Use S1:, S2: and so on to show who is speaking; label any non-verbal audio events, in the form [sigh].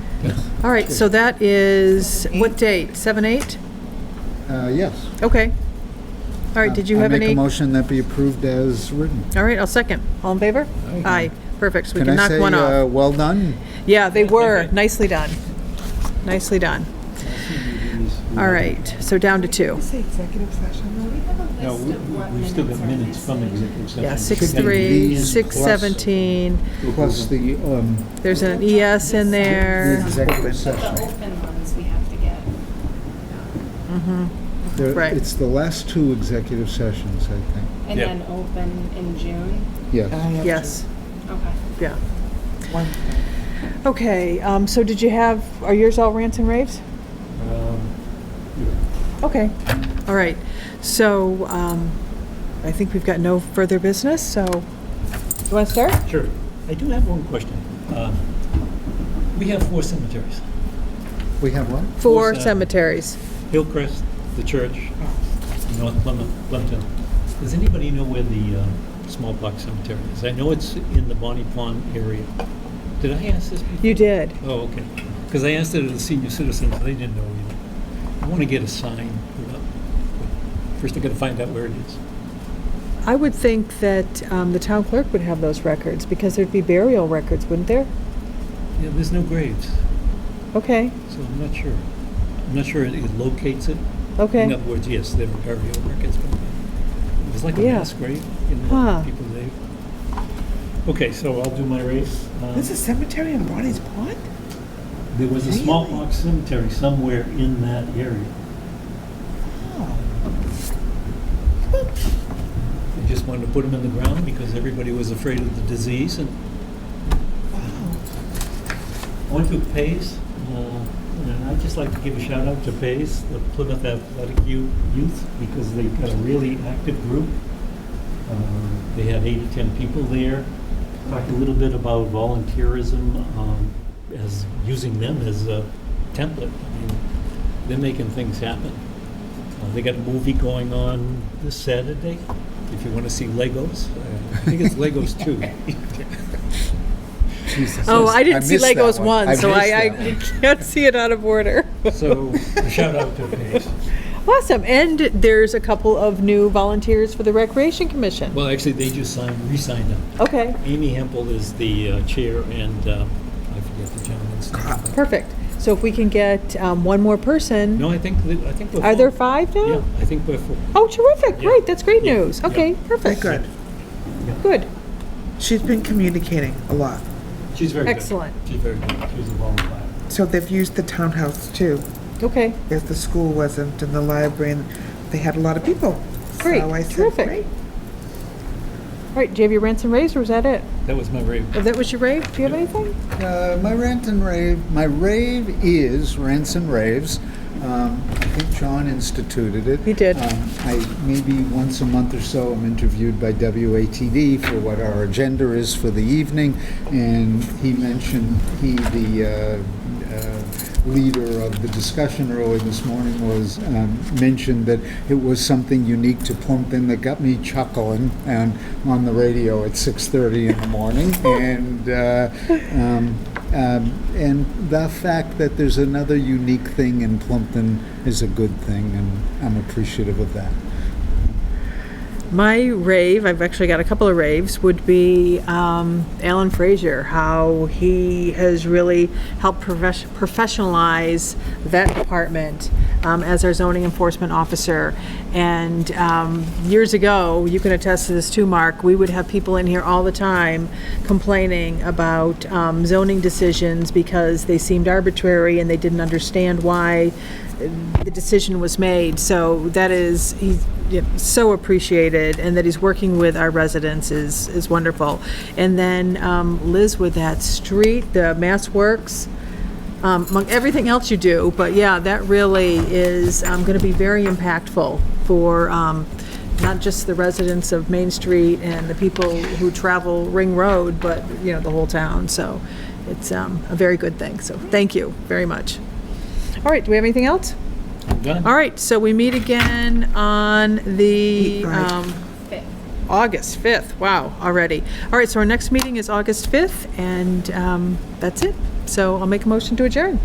S1: All right, so that is, what date? 7, 8?
S2: Uh, Yes.
S1: Okay. All right, did you have
S2: I make
S1: any?
S2: a
S1: All
S2: motion that be approved as written.
S1: right, I'll second. All in favor? Aye. Perfect, so we can knock one
S2: I say, uh,
S1: off.
S2: well done?
S1: Yeah, they were. Nicely done. Nicely done. All right, so down to two.
S3: Say executive session,
S4: No, we- we- we've still got minutes from executive session.
S1: Yeah,
S2: six,
S1: 6-3,
S2: three, these
S1: 6-17,
S2: Plus the um,
S1: there's an ES in
S2: the
S1: there.
S2: executive
S5: The
S2: session.
S5: open ones we have to get.
S2: There-
S1: Right.
S2: It's the last two executive sessions, I think.
S5: And
S6: Yeah.
S5: then open in June.
S2: Yes.
S3: though?
S1: Yes,
S5: Okay.
S1: yeah.
S3: One
S1: Okay, um, so did you have, are yours all rants and raves?
S4: Um,
S1: Okay, all right. So um, I think we've got no further business, so you want to start?
S4: Sure. I do have one question. Um, We have four cemeteries,
S2: We have one?
S1: Four
S4: Who's that?
S1: cemeteries.
S4: Hillcrest, the church, North Plymouth, Plimpton. Does anybody know where the um, smallpox cemetery is? I know it's in the Bonnie Pond area. Did I ask this before?
S1: You did.
S4: Oh, okay. Because I asked it of the senior citizens, they didn't know either. I want to get a sign put up. First, I got to find out where it is.
S1: I would think that um, the town clerk would have those records because there'd be burial records, wouldn't there?
S4: Yeah, there's no graves.
S1: Okay,
S4: So I'm not sure. I'm not sure it locates it. In
S1: okay.
S4: other words, yes, there were burial records, but it was like a
S1: Yeah.
S4: mass grave in
S1: Huh.
S4: the people they. Okay, so I'll do my race. Um,
S3: There's a cemetery in Bonnie's Pond?
S4: There was a
S3: Really?
S4: smallpox cemetery somewhere in that area. They just wanted to put them in the ground because everybody was afraid of the disease and. I went to Pace, uh, and I'd just like to give a shout out to Pace, the Plymouth Athletic Yo- Youth, because they've got a really active group. Um, They had eight to 10 people there. Talked a little bit about volunteerism um, as, using them as a template. I mean, They're making things happen. Uh, They got a movie going on this Saturday, if you want to see Legos. I think it's Legos [laughs] 2.
S1: Oh, I didn't
S2: I
S1: see
S2: missed that
S1: Legos
S2: one.
S1: one,
S2: I
S1: so [laughs]
S2: missed
S1: I, I
S2: that
S1: can't see it out of order.
S4: So, shout out to Pace.
S1: Awesome, and there's a couple of new volunteers for the Recreation Commission.
S4: Well, actually, they just signed, re-signed up.
S1: Okay,
S4: Amy Hempel is the uh, chair, and um, I forget the gentleman's name.
S1: perfect. So if we can get um, one more person,
S4: No, I think, that- I think we're.
S1: are there
S4: full.
S1: five now?
S4: Yeah, I think we're full.
S1: Oh, terrific,
S4: Yeah.
S1: great, that's great
S4: Yeah.
S1: news. Okay, perfect.
S3: Good.
S1: Good,
S3: She's been communicating a lot.
S4: She's very good.
S1: Excellent.
S4: She's very good. She was a volunteer.
S3: So they've used the townhouse too,
S1: okay,
S3: if the school wasn't, and the library, and they had a lot of people.
S1: Great,
S3: So I said,
S1: terrific.
S3: "Great."
S1: all right, do you have your rants and raves, or was that it?
S4: That was my rave.
S1: If that was your rave, do you have
S4: Yeah.
S1: anything?
S2: Uh, My rant and rave, my rave is rants and raves. Um, I think John instituted it.
S1: He did.
S2: Um, I, maybe once a month or so, I'm interviewed by WATD for what our agenda is for the evening, and he mentioned, he, the uh, uh, leader of the discussion early this morning was, um, mentioned that it was something unique to Plumpton that got me chuckling and on the radio at 6:30 in the morning, and, uh, um, um, and the fact that there's another unique thing in Plumpton is a good thing, and I'm appreciative of that.
S1: My rave, I've actually got a couple of raves, would be um, Alan Frazier, how he has really helped profes- professionalize that department um, as our zoning enforcement officer. And um, years ago, you can attest to this too, Mark, we would have people in here all the time complaining about um, zoning decisions because they seemed arbitrary and they didn't understand why uh, the decision was made, so that is, he's yeah, so appreciated, and that he's working with our residents is, is wonderful. And then um, Liz with that street, the Mass Works, um, among everything else you do, but yeah, that really is um, going to be very impactful for um, not just the residents of Main Street and the people who travel Ring Road, but, you know, the whole town, so it's um, a very good thing, so thank you very much. All right, do we have anything else?
S4: I'm done.
S1: All right, so we meet again on the
S3: Eight, right.
S1: um,
S5: Fifth.
S1: August 5th. Wow, already. All right, so our next meeting is August 5th, and um, that's it. So I'll make a motion to adjourn.